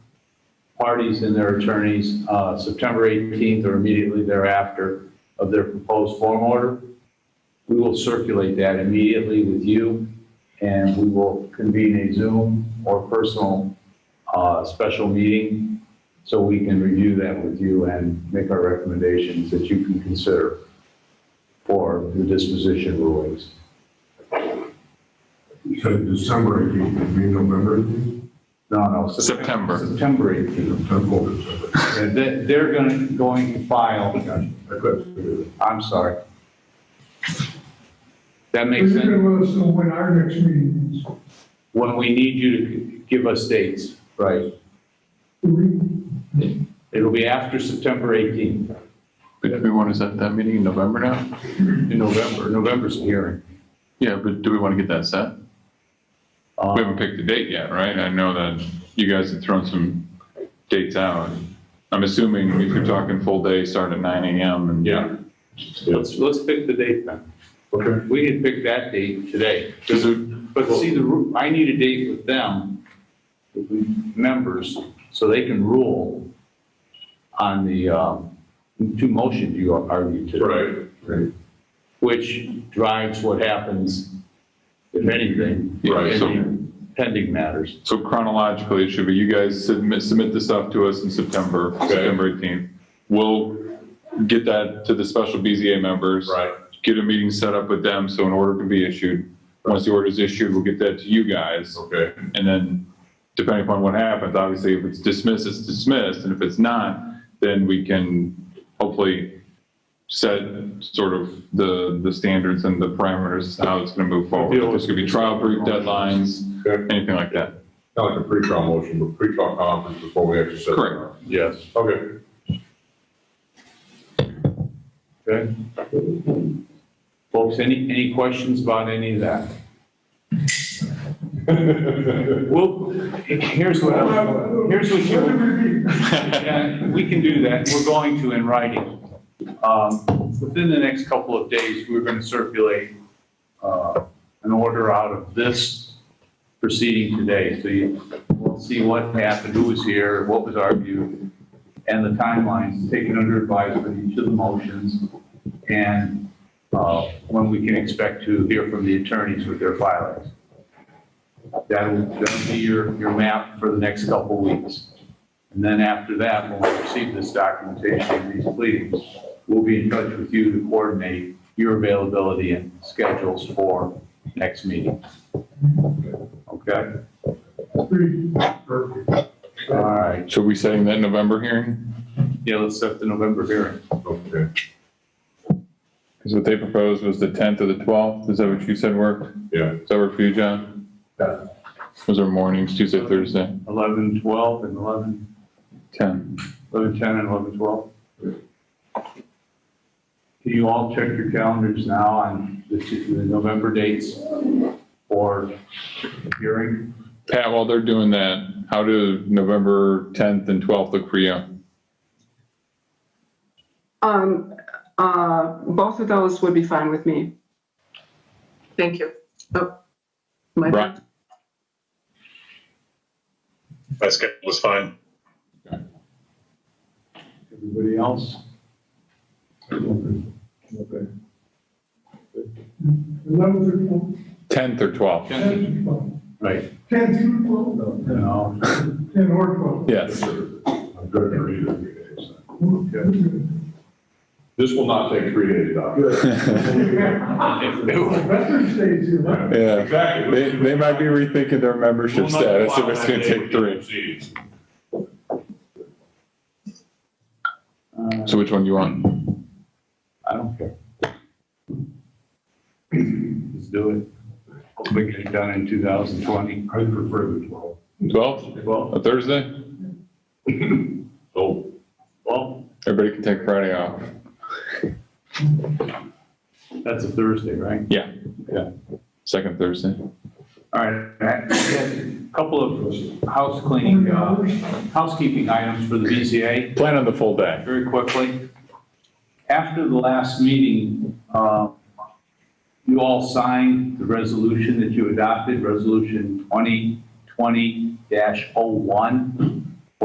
parties and their attorneys, uh, September 18th or immediately thereafter of their proposed form order. We will circulate that immediately with you, and we will convene a Zoom or personal uh, special meeting so we can review that with you and make our recommendations that you can consider for the disposition rulings. So December 18th would be November 18th? No, no. Sep- September. September 18th. September, December. And they- They're going, going to file, Gotcha. I couldn't figure it I'm sorry. That You're makes sense? gonna let us know when our next meeting is. When we need you to give us dates, right? Do we- It'll be after September 18th, But do we want to set that meeting in November now? in November, November's the hearing. Yeah, but do we want to get that set? Uh, We haven't picked the date yet, right? I know that you guys have thrown some dates out. I'm assuming if you're talking full day, start at nine AM and. Yeah. Let's, let's pick the date then. Okay. We can pick that date today. Is it, But see, the, ru- I need a date with them, with the members, so they can rule on the, um, two motions you argued today. Right. Right. Which drives what happens, if anything, in Right, so- the pending matters. so chronologically, it should be you guys submit, submit the stuff to us in September, September 18th. We'll get that to the special BZA members. Right. Get a meeting set up with them so an order can be issued. Once the order is issued, we'll get that to you guys. Okay. And then depending upon what happens, obviously, if it's dismissed, it's dismissed, and if it's not, then we can hopefully set sort of the, the standards and the parameters, as to how it's going to move forward. If There's going to be trial brief deadlines, Okay. anything like that. Kind of like a pre-trial motion, but pre-trial conference before we actually set. it. Correct. Yes. Okay. Okay. Folks, any, any questions about any of that? Well, here's what, here's what you. Yeah, we can do that. We're going to in writing. Um, Within the next couple of days, we're going to circulate uh, an order out of this proceeding today. So you will see what happened, who was here, what was argued, and the timelines taken under advisement, each of the motions, and uh, when we can expect to hear from the attorneys with their filings. That'll, that'll be your, your map for the next couple of weeks. And then after that, when we receive this documentation and these pleadings, we'll be in touch with you to coordinate your availability and schedules for next meeting. Okay? All right, So we setting that November hearing? yeah, let's set the November hearing. Okay. Because what they proposed was the 10th or the 12th. Is that what you said worked? Yeah. Does that work for you, John? Yeah. Those are mornings, Tuesday, Thursday, 11, 12, and 11, 10. 11, 10, and 11, 12. Can you all check your calendars now on the two- the November dates for hearing? Pat, while they're doing that, how do November 10th and 12th look for you? Um, uh, both of those would be fine with me. Thank you. Oh, my- Right. My schedule was fine. Everybody else? Eleven through twelve, 10th or 12th? ten through twelve, Right. ten through twelve, No. ten or twelve. Yes. I'm good for either of you days. This will not take three days, Veterans Day is eleven. Yeah, they, they might be rethinking their membership status if it's gonna take three. Uh, So which one do you want? I don't care. Let's do it. Hopefully get it done in 2020. I prefer the 12. Twelfth, Well, a Thursday? Oh. so, well, Everybody can take Friday off. that's a Thursday, right? Yeah. Yeah. Second Thursday. All right, Matt, we had a couple of house cleaning, uh, housekeeping items for the BZA. Plan on the full day. very quickly. After the last meeting, uh, you all signed the oh resolution that you adopted, Resolution 2020-01.